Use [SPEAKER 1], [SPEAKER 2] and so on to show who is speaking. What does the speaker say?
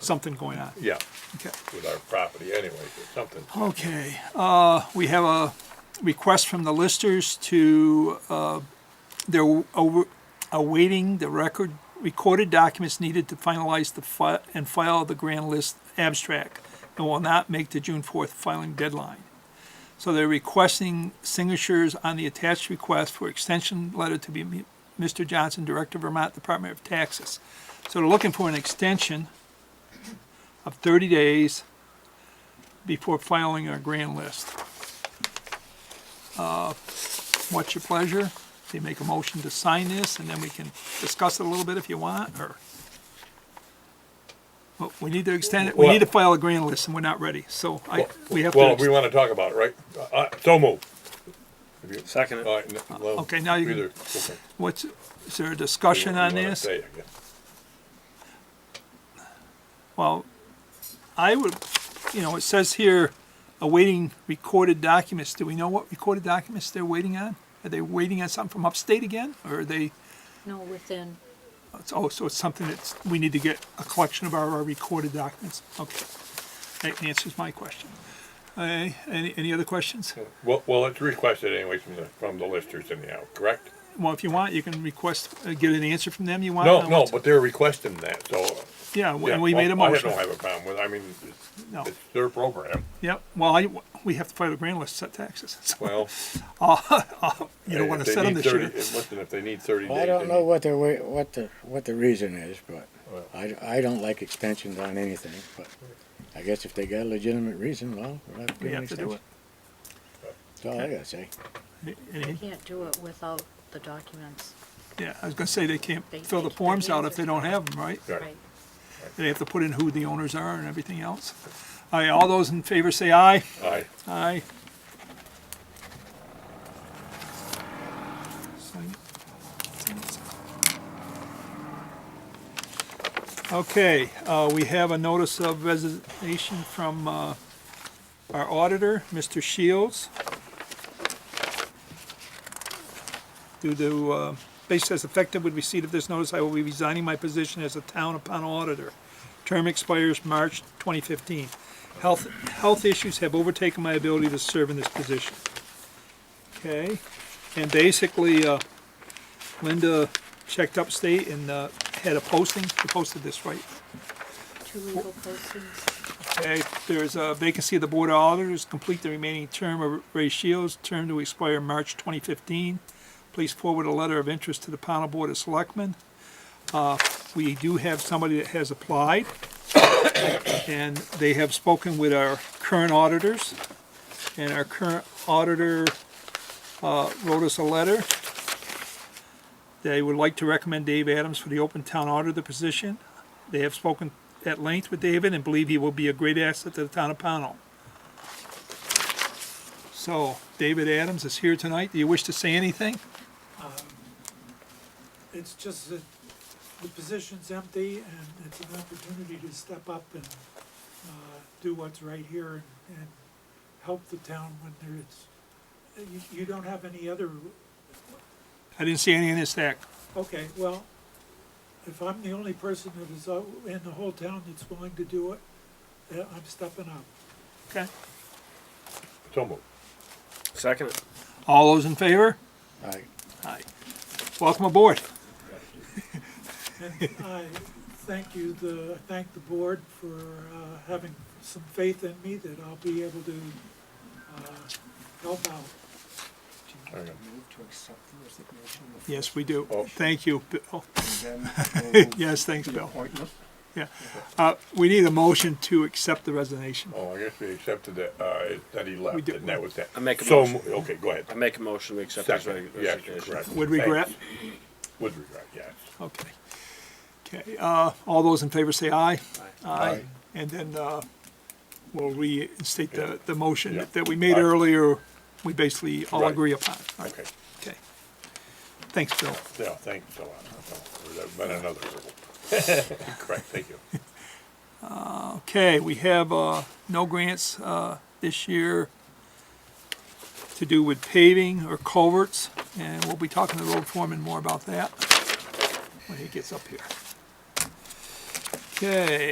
[SPEAKER 1] something going on.
[SPEAKER 2] yeah,
[SPEAKER 1] Okay.
[SPEAKER 2] with our property anyway, or something.
[SPEAKER 1] Okay, uh, we have a request from the listers to, uh, they're aw- awaiting the record, recorded documents needed to finalize the fi- and file the grand list abstract and will not make the June fourth filing deadline. So they're requesting signatures on the attached request for extension letter to be m- Mr. Johnson, Director of Vermont Department of Taxes. So they're looking for an extension of thirty days before filing our grand list. Uh, What's your pleasure? They make a motion to sign this, and then we can discuss it a little bit if you want, or? Well, we need to extend it, we need to file a grand list, and we're not ready, so I, we have to.
[SPEAKER 2] Well, we wanna talk about it, right? Uh, Uh, so move.
[SPEAKER 3] Second
[SPEAKER 2] All right, n- well,
[SPEAKER 1] Okay, now you can-
[SPEAKER 2] either- okay.
[SPEAKER 1] What's, is there a discussion
[SPEAKER 2] You wanna
[SPEAKER 1] on this?
[SPEAKER 2] say, I guess.
[SPEAKER 1] Well, I would, you know, it says here awaiting recorded documents. Do we know what recorded documents they're waiting on? Are they waiting on something from upstate again, or are they,
[SPEAKER 4] No, within,
[SPEAKER 1] it's- oh, so it's something that's, we need to get a collection of our our recorded documents? Okay. That answers my question. Uh, any, any other questions?
[SPEAKER 2] Well, well, it's requested anyway from the, from the listers anyhow, correct?
[SPEAKER 1] Well, if you want, you can request, uh, get an answer from them you want.
[SPEAKER 2] No,
[SPEAKER 1] and
[SPEAKER 2] no,
[SPEAKER 1] what's-
[SPEAKER 2] but they're requesting that, so.
[SPEAKER 1] Yeah, w-
[SPEAKER 2] yeah,
[SPEAKER 1] and we made a
[SPEAKER 2] well,
[SPEAKER 1] motion.
[SPEAKER 2] I don't have a problem with, I mean, it's-
[SPEAKER 1] No.
[SPEAKER 2] it's their program,
[SPEAKER 1] Yep, well, I, we have to file a grand list to set taxes. So
[SPEAKER 2] well.
[SPEAKER 1] You don't want
[SPEAKER 2] if
[SPEAKER 1] to
[SPEAKER 2] they
[SPEAKER 1] set them this
[SPEAKER 2] need
[SPEAKER 1] year.
[SPEAKER 2] 30 Listen, if they need thirty days.
[SPEAKER 5] I
[SPEAKER 2] they
[SPEAKER 5] don't know
[SPEAKER 2] need-
[SPEAKER 5] what the, wa- what the, what the reason is, but
[SPEAKER 2] Well.
[SPEAKER 5] I, I don't like extensions on anything, but I guess if they got a legitimate reason, well, we'll have to
[SPEAKER 1] We
[SPEAKER 5] give
[SPEAKER 1] have
[SPEAKER 5] an
[SPEAKER 1] to do
[SPEAKER 5] extension.
[SPEAKER 1] it.
[SPEAKER 5] That's all I gotta say.
[SPEAKER 1] Any-
[SPEAKER 4] you can't do it without the documents,
[SPEAKER 1] Yeah, I was gonna say they can't
[SPEAKER 4] They-
[SPEAKER 1] fill the
[SPEAKER 4] they-
[SPEAKER 1] forms
[SPEAKER 4] they
[SPEAKER 1] out if they
[SPEAKER 4] answer.
[SPEAKER 1] don't have them, right?
[SPEAKER 2] Right.
[SPEAKER 4] right?
[SPEAKER 1] They have to put in who the owners are and everything else. All right, all those in favor say aye.
[SPEAKER 2] Aye.
[SPEAKER 1] Aye. Okay, uh, we have a notice of resignation from, uh, our auditor, Mr. Shields. Due to, uh, basis as effective with receipt of this notice, I will be resigning my position as a town upon auditor. Term expires March twenty fifteen. Health, health issues have overtaken my ability to serve in this position. Okay, and basically, uh, Linda checked upstate and, uh, had a posting, she posted this, right?
[SPEAKER 4] Two legal postings,
[SPEAKER 1] Okay, there's a vacancy of the Board of Auditors, complete the remaining term of Ray Shields, term to expire March 2015. Please forward a letter of interest to the panel Board of Selectmen. Uh, We do have somebody that has applied, and they have spoken with our current auditors, and our current auditor uh, wrote us a letter. They would like to recommend Dave Adams for the open town auditor position. They have spoken at length with David and believe he will be a great asset to the town of Pownell. So, David Adams is here tonight. Do you wish to say anything?
[SPEAKER 6] Um, It's just that the position's empty and it's an opportunity to step up and uh, do what's right here and- and help the town when there's, you, you don't have any other,
[SPEAKER 1] I didn't see any in his stack.
[SPEAKER 6] okay, well, if I'm the only person that is out in the whole town that's willing to do it, uh, I'm stepping up.
[SPEAKER 1] Okay.
[SPEAKER 2] So move.
[SPEAKER 3] Second it.
[SPEAKER 1] All those in favor?
[SPEAKER 5] I,
[SPEAKER 1] Aye. Welcome aboard.
[SPEAKER 6] And I thank you, the, I thank the board for uh, having some faith in me that I'll be able to uh, help out.
[SPEAKER 2] There you go.
[SPEAKER 1] Yes, we do.
[SPEAKER 2] Oh. um,
[SPEAKER 1] Thank you, Bill. Yes, thanks, Bill.
[SPEAKER 7] appointment.
[SPEAKER 1] Yeah. Uh, we need a motion to accept the resignation.
[SPEAKER 2] Oh, I guess we accepted that, uh, that he
[SPEAKER 1] We
[SPEAKER 2] left,
[SPEAKER 1] did-
[SPEAKER 2] and that was that.
[SPEAKER 3] I make a
[SPEAKER 2] So
[SPEAKER 3] motion.
[SPEAKER 2] mo- Okay, go ahead.
[SPEAKER 3] I make a motion we accept his
[SPEAKER 2] Second, yes,
[SPEAKER 3] resignation.
[SPEAKER 2] correct.
[SPEAKER 1] With regret?
[SPEAKER 2] Thanks. With regret, yes.
[SPEAKER 1] Okay. Okay, uh, all those in favor say aye. Aye.
[SPEAKER 5] Aye.
[SPEAKER 1] And then, uh, we'll reinstate
[SPEAKER 2] Yeah.
[SPEAKER 1] the, the motion
[SPEAKER 2] Yeah.
[SPEAKER 1] that we made
[SPEAKER 2] Aye.
[SPEAKER 1] earlier, we basically all
[SPEAKER 2] Right.
[SPEAKER 1] agree upon. All right,
[SPEAKER 2] Okay,
[SPEAKER 1] Okay. Thanks, Bill.
[SPEAKER 2] yeah, thanks a lot. Oh, There's been another hurdle. Correct, thank you.
[SPEAKER 1] Okay, we have, uh, no grants, uh, this year to do with paving or culverts, and we'll be talking to the road foreman more about that when he gets up here. Okay,